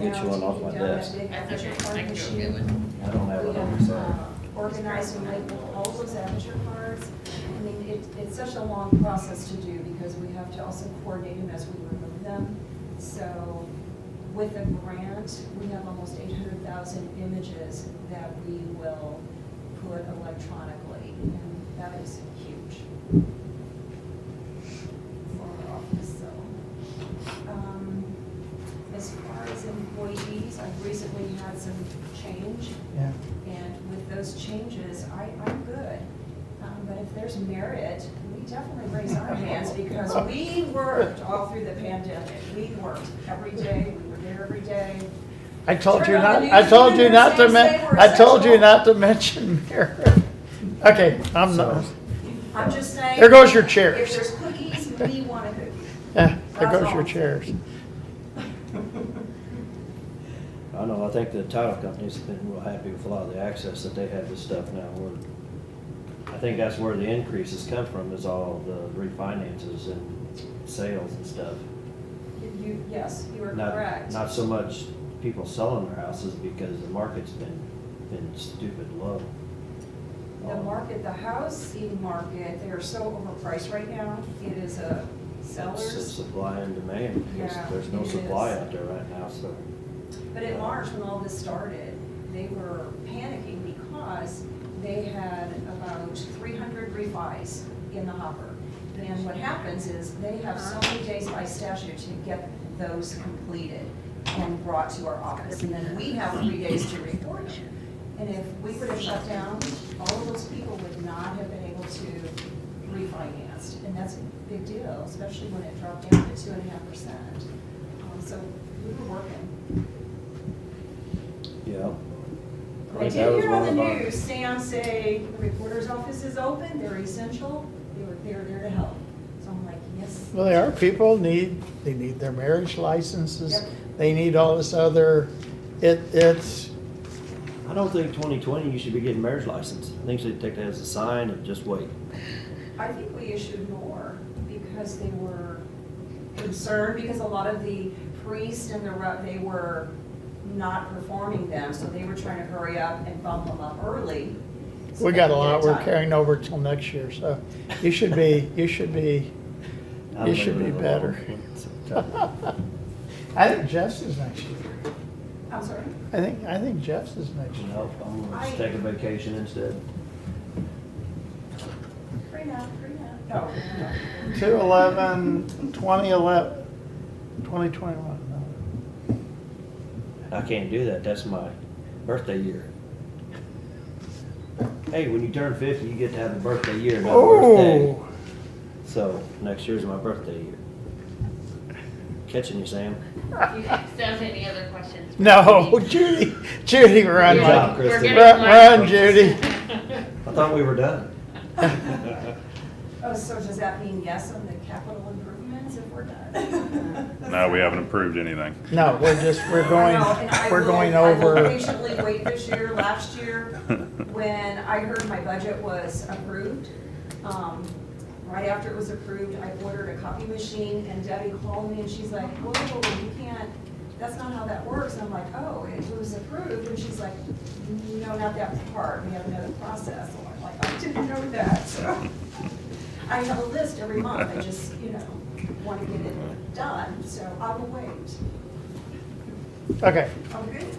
Get you one off my desk. That's okay, I can go get one. I don't have We one on have, me, sorry. uh, Organized and labeled all those amateur cards. I mean, it, it's such a long process to do because we have to also coordinate them as we remove them. So with a grant, we have almost eight hundred thousand images that we will put electronically. And that is huge for our office, so. um, As far as employees, I've recently had some change. Yeah. And with those changes, I, I'm good. Um, But if there's merit, we definitely raise our hands because we worked all through the pandemic. We worked every day, we were there every day. I told you Turn not, on the I news, told you you're not to saying men, they were I told you sexual. not to mention Mary. Okay, I'm not, I'm just saying. There goes your chairs. If there's cookies, we want a cookie. yeah, there goes That's all. your chairs. I know, I think the title companies have been real happy with a lot of the access that they have to stuff now. We're- I think that's where the increases come from, is all the refinances and sales and stuff. You, yes, you are Not- correct. Not so much people selling their houses because the market's been, been stupid low. The market, the housing market, they are so overpriced right now. It is a It's the seller's. supply and demand, because Yeah, there's no it supply is. out there right now, so. But in March, when all this started, they were panicking because they had about three hundred refis in the hopper. And what happens is they have so many days by statute to get those completed and brought to our office. And then we have three days to report them. And if we would have shut down, all of those people would not have been able to refinanced. And that's a big deal, especially when it dropped down to two and a half percent. Um, So we were working. Yeah. I think did that was hear on the one of our- news, Sam say, the reporter's office is open, they're essential, they were, they're there to help. So I'm like, yes. Well, there are, people need, they need their marriage licenses, Yep. they need all this other, it, it's, I don't think twenty twenty, you should be getting marriage license. I think you should take that as a sign and just wait. I think we issued more because they were concerned, because a lot of the priests and the, re- they were not performing them, so they were trying to hurry up and bump them up early. so we they got a could get lot it we're done. carrying over till next year, so you should be, you should be, I you should be live in a better. long- I think Jeff's is next year. I'm sorry. I think, I think Jeff's is next year. No, I'm gonna just take a vacation instead. Free up, free up. No, no. Two eleven, twenty eleven, twenty twenty-one, I can't do that. That's my birthday year. Hey, when you turn fifty, you get to have a birthday year, no. not a birthday. Oh, So next year's my birthday year. Catching you, Sam. Do you have any other questions? for no, Judy? Oh, Judy, Judy, run, Good Mike. job, We're Kristen. Run, getting light. run, Judy. I thought we were done. Oh, so does that mean yes on the capital improvements if we're done? No, we haven't approved anything. No, we're just, we're I going, know, and I we're will- going I will over, patiently wait this year, last year, when I heard my budget was approved. um, Right after it was approved, I ordered a copy machine and Debbie called me and she's like, whoa, you can't, that's not how that works. And I'm like, oh, it was approved. And she's like, no, not that part. We have another process. And I'm like, I didn't know that. So I have a list every month. I just, you know, want to get it done. So I will wait. okay. I'm Oh, good.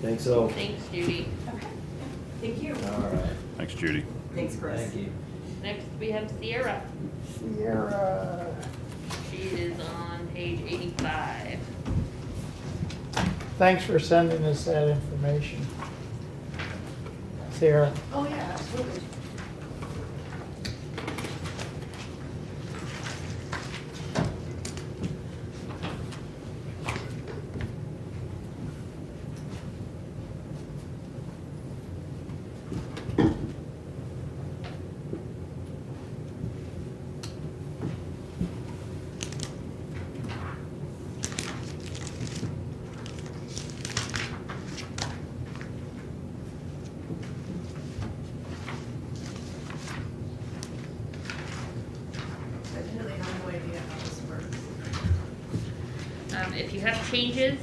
Think so? Thanks, Judy. Okay, thank you. All right. Thanks, Judy. Thanks, Uh, Thank you. Next, we have Sierra. Sierra, She is on page eighty-five. thanks for sending us that information. Sierra, Oh, yeah, absolutely. Um, changes